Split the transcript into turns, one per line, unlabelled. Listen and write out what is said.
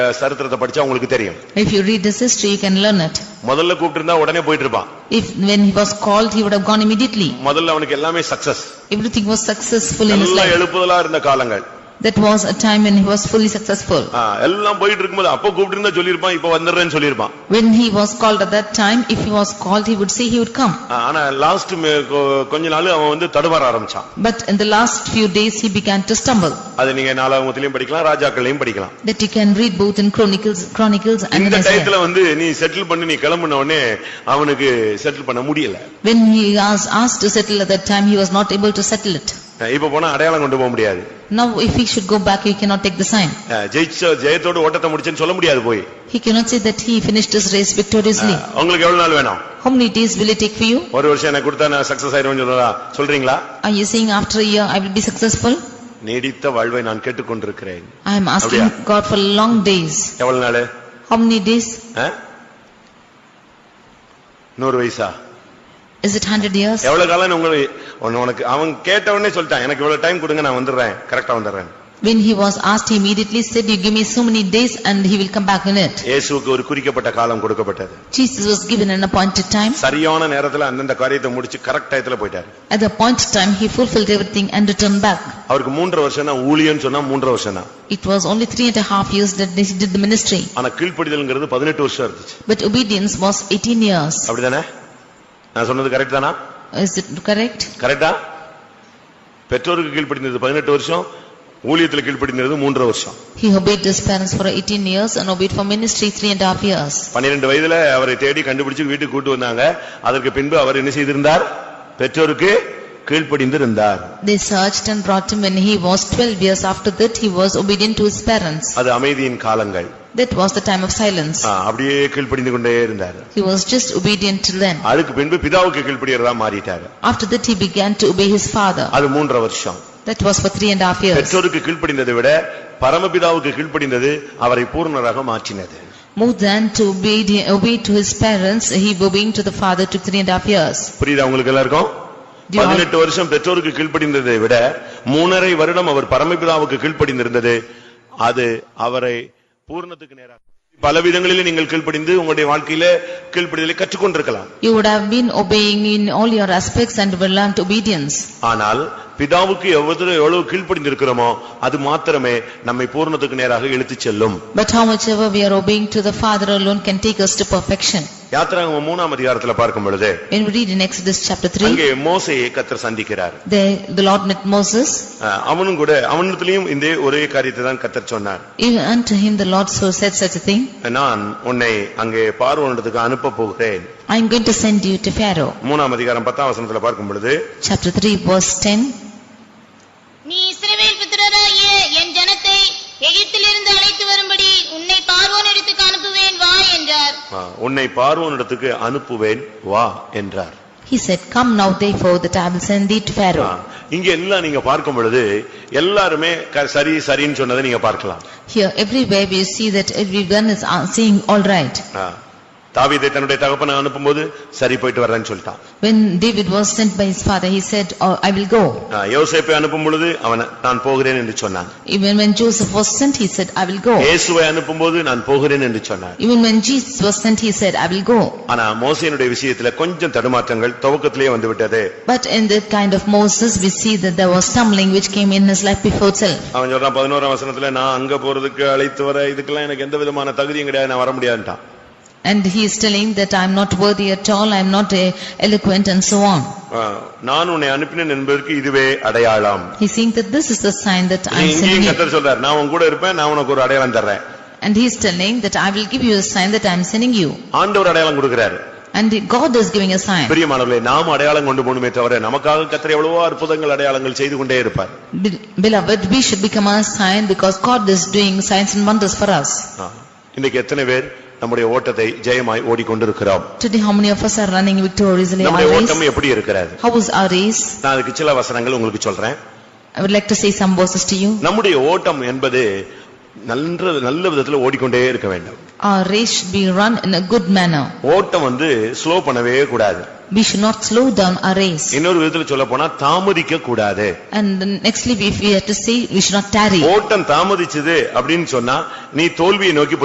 சரித்திரத்தை படிச்சா உங்களுக்கு தெரியும்
If you read his history, you can learn it.
முதல்ல கூப்பிட்டு இருந்தா உடனே போயிட்டு இருப்பான்
If when he was called, he would have gone immediately.
முதல்ல அவனுக்கு எல்லாமே success
Everything was successful in his
நல்லா
life.
எழுப்புதலா இருந்த காலங்கள்
That was a time when he was fully successful.
ஆ, எல்லாம் போயிட்டு இருக்கும்போது அப்போ கூப்பிட்டு இருந்தா சொல்லியிருப்பான் இப்ப வந்துடுறேன்னு சொல்லியிருப்பான்
When he was called at that time, if he was called, he would say he would come.
ஆ, ஆனா லாஸ்ட் கொஞ்ச நாள் அவன் வந்து தடுமாற ஆரம்பிச்சான்
But in the last few days, he began to stumble.
அது நீங்க நாலாவங்கத்திலயும் படிக்கலாம் ராஜாக்களையும் படிக்கலாம்
That you can read both in Chronicles, Chronicles and in
இந்த
Isaiah.
டயத்துல வந்து நீ செட்டில் பண்ணி நீ கிளம்புன உடனே அவனுக்கு செட்டில் பண்ண முடியல
When he was asked to settle at that time, he was not able to settle it.
அஹ் இப்ப போனா அடையாளம் கொண்டு போக முடியாது
Now, if he should go back, he cannot take the sign.
அஹ் ஜெயிச்ச ஜெயத்தோடு ஓட்டத்தை முடிச்சேன்னு சொல்ல முடியாது போய்
He cannot say that he finished his race victoriously.
அஹ் உங்களுக்கு எவ்வளவு நாள் வேணும்
How many days will it take for you?
ஒரு வருஷம் எனக்கு கொடுத்தா நான் சக்சஸ் ஆயிருவேன்னு சொல்றா சொல்றீங்களா
Are you saying after a year I will be successful?
நீடித்த வாழ்வை நான் கேட்டுக்கொண்டிருக்கிறேன்
I am asking
அப்படியா?
God for long days.
எவ்வளவு நாள்
How many days?
நூறு வயசா
Is it hundred years?
எவ்வளவு காலம் உங்களுக்கு உன்னை- உனக்கு அவன் கேட்ட உடனே சொல்லிட்டான் எனக்கு இவ்வளவு டைம் கொடுங்க நான் வந்துடுறேன் கரெக்டா வந்துடுறேன்
When he was asked, he immediately said, you give me so many days and he will come back in it.
இயேசுவுக்கு ஒரு குறிக்கப்பட்ட காலம் கொடுக்கப்பட்டது
Jesus was given an appointed time.
சரியான நேரத்துல அந்தந்த காரியத்தை முடிச்சு கரெக்ட் டயத்துல போயிட்டாரு
At the appointed time, he fulfilled everything and returned back.
அவருக்கு மூன்றரை வருஷம் தான் ஊழியன்னு சொன்னா மூன்றரை வருஷம் தான்
It was only three and a half years that he did the ministry.
ஆனா கீழ்ப்படிதல்ங்கிறது பதினெட்டு வருஷம் இருந்துச்சு
But obedience was 18 years.
அப்படிதானே நான் சொன்னது கரெக்ட் தானா
Is it correct?
கரெக்டா பெற்றோருக்கு கீழ்ப்படிந்தது பதினெட்டு வருஷம் ஊழியத்துல கீழ்ப்படிந்தது மூன்றரை வருஷம்
He obeyed his parents for 18 years and obeyed for ministry three and a half years.
பன்னிரண்டு வயதுல அவரை தேடி கண்டுபிடிச்சு வீட்டுக்கு கூட்டு வந்தாங்க அதற்கு பின்பு அவர் என்ன செய்திருந்தார் பெற்றோருக்கு கீழ்ப்படிந்திருந்தார்
They searched and brought him when he was 12 years. After that, he was obedient to his parents.
அது அமைதியின் காலங்கள்
That was the time of silence.
ஆ, அப்படியே கீழ்ப்படிந்து கொண்டே இருந்தார்
He was just obedient till then.
அதுக்கு பின்பு பிதாவுக்கு கீழ்ப்படியறதா மாறிட்டாரு
After that, he began to obey his father.
அது மூன்றரை வருஷம்
That was for three and a half years.
பெற்றோருக்கு கீழ்ப்படிந்ததை விட பரமபிதாவுக்கு கீழ்ப்படிந்தது அவரை பூர்ணராக மாற்றினது
More than to obey, obey to his parents, he obeying to the father took three and a half years.
புரியுதா உங்களுக்கு எல்லாருக்கும்
Do you all-
பதினெட்டு வருஷம் பெற்றோருக்கு கீழ்ப்படிந்ததை விட மூணரை வருடம் அவர் பரமபிதாவுக்கு கீழ்ப்படிந்திருந்தது அது அவரை பூர்ணத்துக்கு நேராக பல விதங்களிலே நீங்கள் கீழ்ப்படிந்து உங்களுடைய வாழ்க்கையில கீழ்ப்படிதலை கற்றுக்கொண்டிருக்கலாம்
You would have been obeying in all your aspects and will learn obedience.
ஆனால் பிதாவுக்கு எவ்வளவு எவ்வளவு கீழ்ப்படிந்திருக்கிறோமோ அது மாத்திரமே நம்மை பூர்ணத்துக்கு நேராக இழுத்துச் செல்லும்
But how much ever we are obeying to the father alone can take us to perfection.
யாத்திராகமம் மூணாம் அதிகாரத்துல பார்க்கும் பொழுது
When we read in Exodus chapter 3,
அங்கே மோசையை கத்தர் சந்திக்கிறார்
there the Lord met Moses.
அஹ் அவனும் கூட அவனிடத்திலையும் இந்த ஒரே காரியத்தை தான் கத்தர் சொன்னார்
Even unto him the Lord so said such a thing,
நான் உன்னை அங்கே பார்வோனிடத்துக்கு அனுப்ப போகிறேன்
I am going to send you to Pharaoh.
மூணாம் அதிகாரம் பத்தாம் வசனத்துல பார்க்கும் பொழுது
Chapter 3 verse 10,
நீ இஸ்ரவேல் புத்திரராகிய என் ஜனத்தை எகிப்திலிருந்து அழைத்து வரும்படி உன்னை பார்வோனிடத்துக்கு அனுப்புவேன் வா என்றார்
அஹ், உன்னை பார்வோனிடத்துக்கு அனுப்புவேன் வா என்றார்
he said, Come now therefore that I will send thee to Pharaoh.
அஹ், இங்க எல்லாம் நீங்க பார்க்கும் பொழுது எல்லாருமே க- சரி சரின்னு சொன்னதை நீங்க பார்க்கலாம்
Here everywhere we see that everyone is uh, saying all right.
அஹ், தாவீதை தன்னுடைய தகப்பனை அனுப்பும்போது சரி போயிட்டு வர்றேன்னு சொல்லிட்டான்
When David was sent by his father, he said, "Oh, I will go."
அஹ், யோசேப்பை அனுப்பும் பொழுது அவன் நான் போகிறேன் என்று சொன்னான்
Even when Joseph was sent, he said, "I will go."
இயேசுவை அனுப்பும்போது நான் போகிறேன் என்று சொன்னான்
Even when Jesus was sent, he said, "I will go."
ஆனா மோசையினுடைய விஷயத்துல கொஞ்சம் தடுமாற்றங்கள் துவக்கத்திலேயே வந்து விட்டது
But in the kind of Moses, we see that there was stumbling which came in his life before itself.
அவன் சொல்றான் பதினோராம் வசனத்துல நான் அங்க போறதுக்கு அழைத்து வர இதுக்கெல்லாம் எனக்கு எந்த விதமான தகுதியும் கிடையாது நான் வர முடியாதுட்டான்
And he is telling that I am not worthy at all, I am not eh, eloquent and so on.
நான் உன்னை அனுப்பினேன் என்பதற்கு இதுவே அடையாளம்
He is saying that this is the sign that I am
இங்கேயும்
sending you.
கத்தர் சொல்றாரு நான் உன் கூட இருப்பேன் நான் உனக்கு ஒரு அடையாளம் தர்றேன்
And he is telling that I will give you a sign that I am sending you.
ஆண்டவர் அடையாளம் கொடுக்கிறாரு
And God is giving a sign.
பிரியமானவர்களே நாம் அடையாளம் கொண்டு போகணுமே தவிர நமக்காக கத்தர் எவ்வளவோ அற்புதங்கள் அடையாளங்கள் செய்து கொண்டே இருப்பார்
Be- Beloved, we should become a sign because God is doing signs and wonders for us.
ஆ. இன்னைக்கு எத்தனை பேர் நம்முடைய ஓட்டத்தை ஜெயமாய் ஓடிக்கொண்டிருக்கிறோம்
Today, how many of us are running victoriously
நம்முடைய
our race?
ஓட்டம் எப்படி இருக்கிறது
How is our race?
நான் அதுக்கு சில வசனங்கள் உங்களுக்கு சொல்றேன்
I would like to say some verses to you.
நம்முடைய ஓட்டம் என்பது நல்ல நல்ல விதத்துல ஓடிக்கொண்டே இருக்க வேண்டும்
Our race should be run in a good manner.
ஓட்டம் வந்து ஸ்லோ பண்ணவே கூடாது
We should not slow down our race.
இன்னொரு விதத்துல சொல்ல போனா தாமதிக்க கூடாது
And then nextly, if we have to say, we should not tarry.
ஓட்டம் தாமதிச்சது அப்படின்னு சொன்னா நீ தோல்வியை நோக்கி